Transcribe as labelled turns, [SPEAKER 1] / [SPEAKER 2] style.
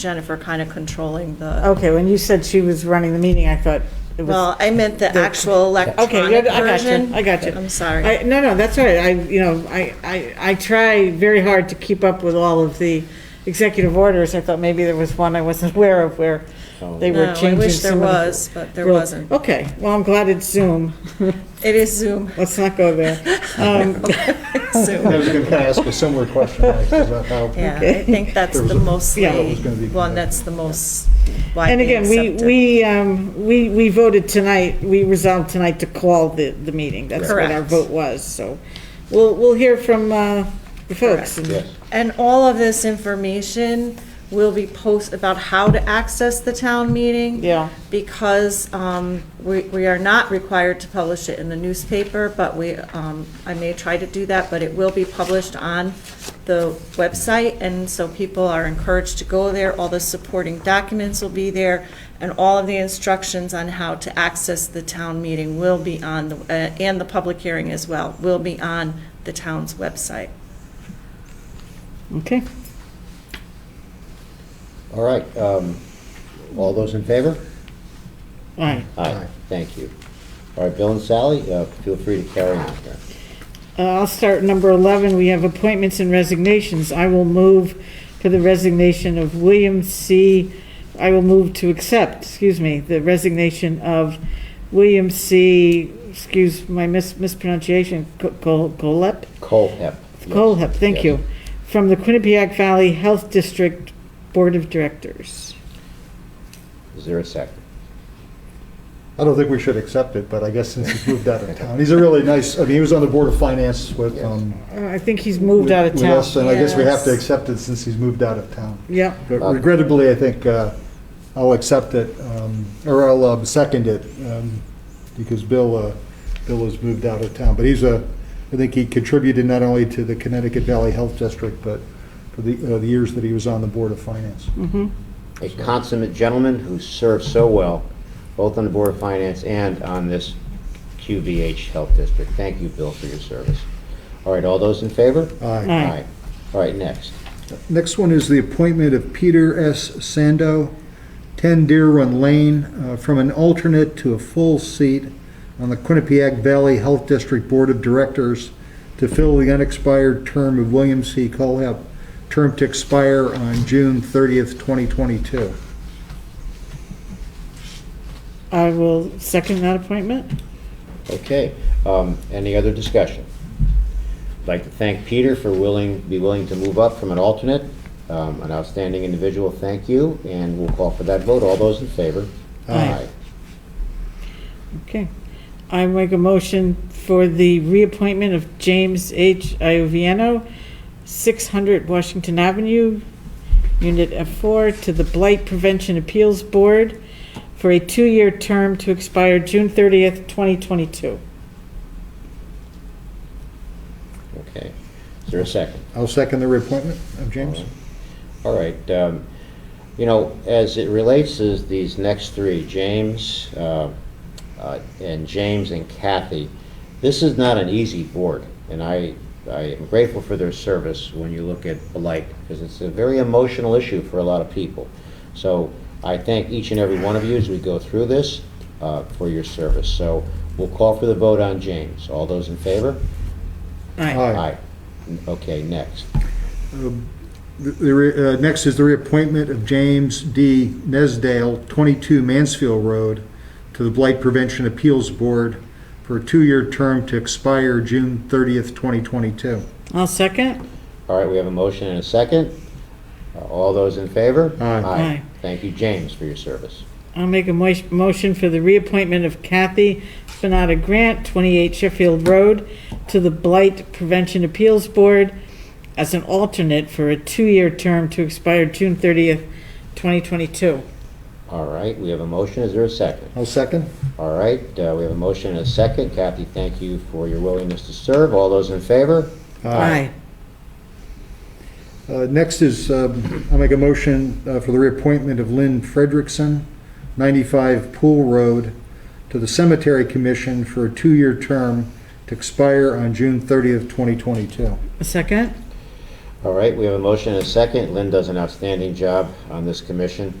[SPEAKER 1] Jennifer kind of controlling the,
[SPEAKER 2] Okay, when you said she was running the meeting, I thought it was,
[SPEAKER 1] well, I meant the actual electronic
[SPEAKER 2] okay, yeah, I got you,
[SPEAKER 1] version.
[SPEAKER 2] I got you.
[SPEAKER 1] I'm sorry.
[SPEAKER 2] I, no, no, that's all right. I, you know, I, I, I try very hard to keep up with all of the executive orders. I thought maybe there was one I wasn't aware of where they
[SPEAKER 1] No,
[SPEAKER 2] were
[SPEAKER 1] I
[SPEAKER 2] changing
[SPEAKER 1] wish there
[SPEAKER 2] some of the-
[SPEAKER 1] was, but there
[SPEAKER 2] Well,
[SPEAKER 1] wasn't.
[SPEAKER 2] Okay, well, I'm glad it's Zoom.
[SPEAKER 1] It is Zoom,
[SPEAKER 2] Let's not go there. Um,
[SPEAKER 1] Zoom.
[SPEAKER 3] I was going to ask a similar question, like, is that how?
[SPEAKER 1] Yeah, I think that's
[SPEAKER 3] There was
[SPEAKER 1] the
[SPEAKER 3] a-
[SPEAKER 1] mostly,
[SPEAKER 2] Yeah. It
[SPEAKER 3] was gonna be-
[SPEAKER 1] one that's the most
[SPEAKER 2] And
[SPEAKER 1] widely
[SPEAKER 2] again, we,
[SPEAKER 1] accepted.
[SPEAKER 2] we, um, we, we voted tonight, we resolved tonight to call the, the meeting. That's what our
[SPEAKER 1] Correct.
[SPEAKER 2] vote was, so. We'll, we'll hear from, uh, the folks. and-
[SPEAKER 3] Yes.
[SPEAKER 1] And all of this information will be post, about how to access the town meeting.
[SPEAKER 2] Yeah.
[SPEAKER 1] Because um, we we are not required to publish it in the newspaper, but we, um, I may try to do that, but it will be published on the website, and so people are encouraged to go there. All the supporting documents will be there, and all of the instructions on how to access the town meeting will be on, the uh, and the public hearing as well, will be on the town's website.
[SPEAKER 2] Okay.
[SPEAKER 4] All right, um, all those in favor?
[SPEAKER 2] All right.
[SPEAKER 4] Aye. Thank you. All right, Bill and Sally, uh, feel free to carry on here.
[SPEAKER 2] Uh, I'll start number 11. We have appointments and resignations. I will move for the resignation of William C., I will move to accept, excuse me, the resignation of William C., excuse my mis- mispronunciation, Co- Co- Colep?
[SPEAKER 4] Cole Hep. yes.
[SPEAKER 2] Colep, thank
[SPEAKER 4] Yes.
[SPEAKER 2] you, from the Quinnipiac Valley Health District Board of Directors.
[SPEAKER 4] Is there a second?
[SPEAKER 3] I don't think we should accept it, but I guess since he's moved out of town, he's a really nice, I mean, he was on the Board of Finance with, um.
[SPEAKER 2] Uh, I think he's moved out of
[SPEAKER 3] with
[SPEAKER 2] town.
[SPEAKER 3] us, And I guess we have to
[SPEAKER 1] Yes.
[SPEAKER 3] accept it since he's moved out of town.
[SPEAKER 2] Yep,
[SPEAKER 3] But regrettably, I think uh, I'll accept it, um, or I'll um, second it, um, because Bill, uh, Bill has moved out of town. But he's a, I think he contributed not only to the Connecticut Valley Health District, but for the uh, the years that he was on the Board of Finance.
[SPEAKER 4] A consummate gentleman who served so well, both on the Board of Finance and on this QVH Health District. Thank you, Bill, for your service. All right, all those in favor?
[SPEAKER 3] Aye.
[SPEAKER 2] Aye.
[SPEAKER 4] All right, next.
[SPEAKER 3] Next one is the appointment of Peter S. Sando, 10 Deer Run Lane, uh, from an alternate to a full seat on the Quinnipiac Valley Health District Board of Directors to fill the unexpired term of William C. Colhep, term to expire on June 30th, 2022.
[SPEAKER 2] I will second that appointment.
[SPEAKER 4] Okay, um, any other discussion? I'd like to thank Peter for willing, be willing to move up from an alternate, um, an outstanding individual, thank you, and we'll call for that vote, all those in favor?
[SPEAKER 2] Aye. Okay. I make a motion for the reappointment of James H. Ioviano, 600 Washington Avenue, Unit F4, to the Blight Prevention Appeals Board for a two-year term to expire June 30th, 2022.
[SPEAKER 4] Okay, is there a second?
[SPEAKER 3] I'll second the reappointment of James.
[SPEAKER 4] All right, um, you know, as it relates to these next three, James, uh, uh, and James and Kathy, this is not an easy board, and I, I am grateful for their service when you look at Blight, because it's a very emotional issue for a lot of people. So I thank each and every one of you as we go through this, uh, for your service. So we'll call for the vote on James. All those in favor?
[SPEAKER 2] Aye.
[SPEAKER 4] Okay, next.
[SPEAKER 3] The- The, re- uh, next is the reappointment of James D. Nesdale, 22 Mansfield Road, to the Blight Prevention Appeals Board for a two-year term to expire June 30th, 2022.
[SPEAKER 2] I'll second.
[SPEAKER 4] All right, we have a motion and a second. Uh, All those in favor?
[SPEAKER 3] Aye.
[SPEAKER 2] Aye.
[SPEAKER 4] Thank you, James, for your service.
[SPEAKER 2] I'll make a mo- motion for the reappointment of Kathy Spinata Grant, 28 Sheffield Road, to the Blight Prevention Appeals Board as an alternate for a two-year term to expire June 30th, 2022.
[SPEAKER 4] All right, we have a motion, is there a second?
[SPEAKER 3] I'll second.
[SPEAKER 4] All right, uh, we have a motion and a second. Kathy, thank you for your willingness to serve. All those in favor?
[SPEAKER 3] Uh, Next is, um, I'll make a motion uh, for the reappointment of Lynn Frederickson, 95 Pool Road, to the Cemetery Commission for a two-year term to expire on June 30th, 2022.
[SPEAKER 2] A second?
[SPEAKER 4] All right, we have a motion and a second. Lynn does an outstanding job on this commission.